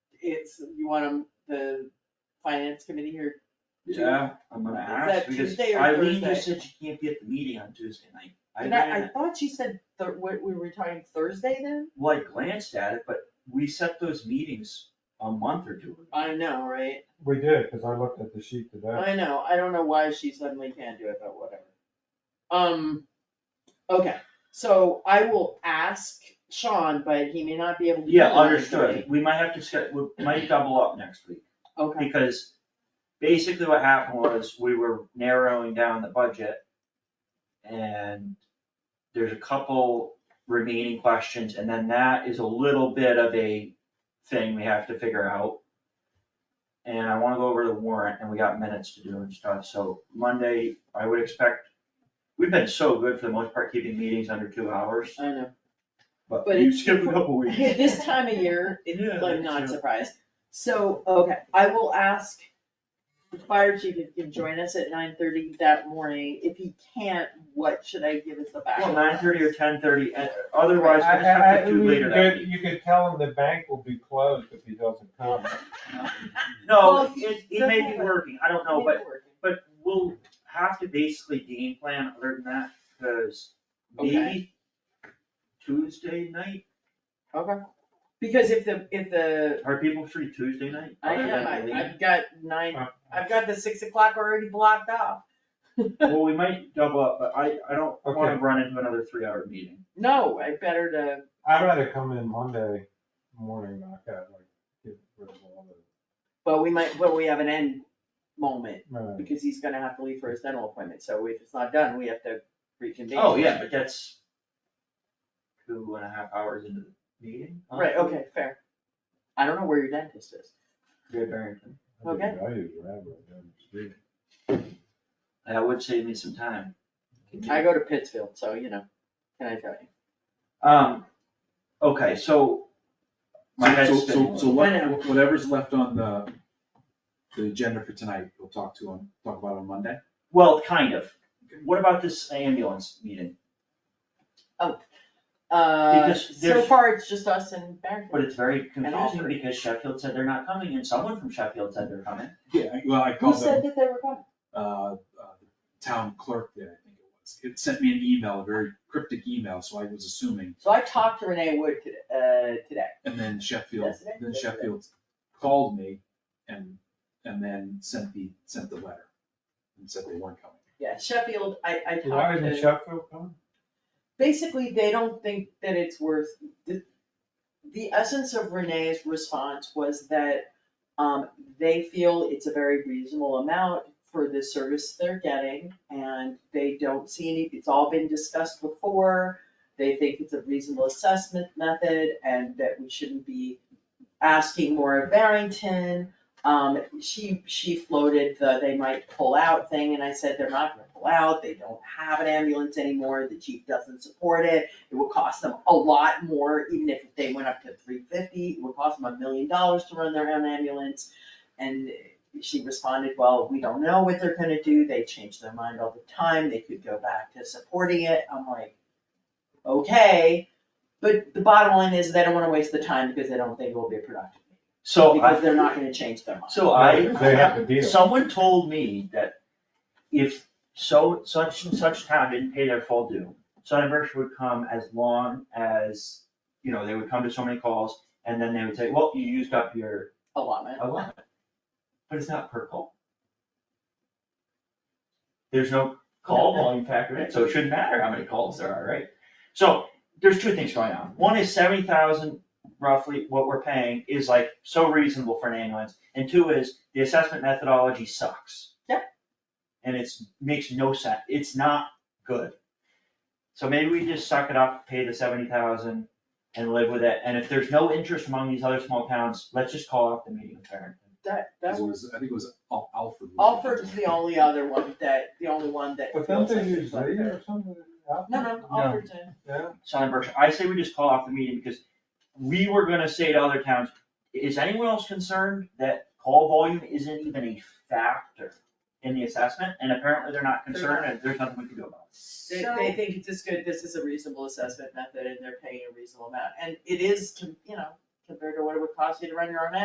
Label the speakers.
Speaker 1: it's, you want 'em- the finance committee here?
Speaker 2: Yeah, I'm gonna
Speaker 1: that
Speaker 2: ask, because
Speaker 1: Tuesday or
Speaker 2: Eileen just
Speaker 1: Thursday?
Speaker 2: said she can't be at the meeting on Tuesday night. I
Speaker 1: And I, I
Speaker 2: ran,
Speaker 1: thought she said, Thur- we, we were talking Thursday then?
Speaker 2: well, I glanced at it, but we set those meetings a month or two. ago.
Speaker 1: I know, right?
Speaker 3: We did, cause I looked at the sheet today.
Speaker 1: I know, I don't know why she suddenly can't do it, but whatever. Um, okay, so I will ask Sean, but he may not be able to. do
Speaker 2: Yeah,
Speaker 1: it on
Speaker 2: understood,
Speaker 1: Thursday.
Speaker 2: we might have to set, we might double up next week.
Speaker 1: Okay,
Speaker 2: Because basically what happened was we were narrowing down the budget. And there's a couple remaining questions and then that is a little bit of a thing we have to figure out. And I wanna go over the warrant and we got minutes to do and stuff, so Monday, I would expect, we've been so good for the most part, keeping meetings under two hours,
Speaker 1: I know.
Speaker 2: but
Speaker 1: But
Speaker 2: you
Speaker 1: it's-
Speaker 2: skipped a couple weeks.
Speaker 1: This time of year,
Speaker 2: Yeah,
Speaker 1: it- I'm
Speaker 2: yeah.
Speaker 1: not surprised. So, okay, I will ask the fire chief if he can join us at nine thirty that morning. If he can't, what should I give as the backup?
Speaker 2: Well, nine thirty or ten thirty, eh, otherwise
Speaker 3: I-
Speaker 2: we'll just have
Speaker 3: I-
Speaker 2: to do
Speaker 3: you
Speaker 2: later that
Speaker 3: could-
Speaker 2: week.
Speaker 3: You could tell him the bank will be closed if he doesn't come.
Speaker 1: Well,
Speaker 2: No, it, it may
Speaker 1: that's-
Speaker 2: be working, I don't know, but, but we'll have to basically game plan other than that, cause maybe Tuesday night,
Speaker 1: Okay. Because if the, if the,
Speaker 2: are people free Tuesday night?
Speaker 1: I
Speaker 2: other
Speaker 1: am,
Speaker 2: than
Speaker 1: I-
Speaker 2: Lee?
Speaker 1: I've got nine, I've got the six o'clock already blocked off.
Speaker 2: Well, we might double up, but I, I don't wanna
Speaker 3: Okay.
Speaker 2: run into another three hour meeting.
Speaker 1: No, I better to,
Speaker 3: I'd rather come in Monday morning, knock out, like, get rid of all
Speaker 1: but we might, but we have an end moment
Speaker 3: the.
Speaker 1: because he's gonna have to leave for his dental appointment. So if it's not done, we have to reconvene.
Speaker 2: Oh, yeah, but that's two and a half hours into the meeting. huh?
Speaker 1: Right, okay, fair. I don't know where your dentist is.
Speaker 2: Yeah, Barrington,
Speaker 1: Okay.
Speaker 3: I use rabbit down the street.
Speaker 2: that would save me some time.
Speaker 1: I go to Pittsfield, so you know, can I tell you?
Speaker 2: Um, okay, so. My
Speaker 4: So,
Speaker 2: head's
Speaker 4: so,
Speaker 2: spinning.
Speaker 4: so
Speaker 1: I know.
Speaker 4: what, whatever's left on the, the agenda for tonight, we'll talk to on, talk about on Monday.
Speaker 2: Well, kind of. What about this ambulance meeting?
Speaker 1: Uh,
Speaker 2: Because
Speaker 1: so
Speaker 2: there's-
Speaker 1: far, it's just us and Barrington.
Speaker 2: But it's very confusing
Speaker 1: Alfred.
Speaker 2: because Sheffield said they're not coming and someone from Sheffield said they're coming.
Speaker 4: Yeah, well, I
Speaker 1: Who
Speaker 4: called
Speaker 1: said
Speaker 4: the,
Speaker 1: that they were coming?
Speaker 4: uh, uh, town clerk there, I think it was. It sent me an email, a very cryptic email, so I was assuming.
Speaker 1: So I talked to Renee Wood today, uh, today.
Speaker 4: And then Sheffield,
Speaker 1: Yesterday?
Speaker 4: then Sheffield called me and, and then sent the, sent the letter. And said they weren't coming.
Speaker 1: Yeah, Sheffield, I, I
Speaker 3: Why
Speaker 1: talked
Speaker 3: isn't
Speaker 1: to,
Speaker 3: Sheffield coming?
Speaker 1: basically, they don't think that it's worth, the, the essence of Renee's response was that, um, they feel it's a very reasonable amount for the service they're getting, and they don't see any, it's all been discussed before. They think it's a reasonable assessment method, and that we shouldn't be asking more of Barrington. Um, she, she floated the they might pull out thing, and I said they're not gonna pull out, they don't have an ambulance anymore, the chief doesn't support it. It would cost them a lot more, even if they went up to three fifty, it would cost them a million dollars to run their own ambulance. And she responded, well, we don't know what they're gonna do, they change their mind all the time, they could go back to supporting it, I'm like, okay. But the bottom line is, they don't wanna waste the time because they don't think it will be productive.
Speaker 2: So I.
Speaker 1: Because they're not gonna change their mind.
Speaker 2: So I.
Speaker 3: They have to deal.
Speaker 2: Someone told me that if so, such and such town didn't pay their full due, Sonnenberg would come as long as, you know, they would come to so many calls and then they would say, well, you used up your
Speaker 1: allotment.
Speaker 2: allotment. But it's not per call. There's no call volume factor in it, so it shouldn't matter how many calls there are, right? So there's two things going on. One is seventy thousand roughly what we're paying is like so reasonable for an ambulance. And two is the assessment methodology sucks.
Speaker 1: Yep.
Speaker 2: And it's, makes no sense. It's not good. So maybe we just suck it up, pay the seventy thousand and live with it. And if there's no interest among these other small towns, let's just call off the meeting in Barrington.
Speaker 1: That,
Speaker 4: 'Cause
Speaker 1: that,
Speaker 4: it was, I think it was Al- Alfred. was-
Speaker 1: Alfred's the only other one that, the only one that.
Speaker 3: But don't
Speaker 1: feels
Speaker 3: they
Speaker 1: like
Speaker 3: use
Speaker 1: it's like-
Speaker 3: Lee or something?
Speaker 1: No, no, Alfred's in.
Speaker 3: Yeah,
Speaker 2: Southern Berkshire, I say we just call off the meeting because we were gonna say to other towns, is anyone else concerned that call volume isn't even a factor in the assessment? And apparently they're not concerned and there's nothing we can do about it.
Speaker 1: They,
Speaker 5: So-
Speaker 1: they think it's just good, this is a reasonable assessment method and they're paying a reasonable amount. And it is, com- you know, compared to what it would cost you to run your own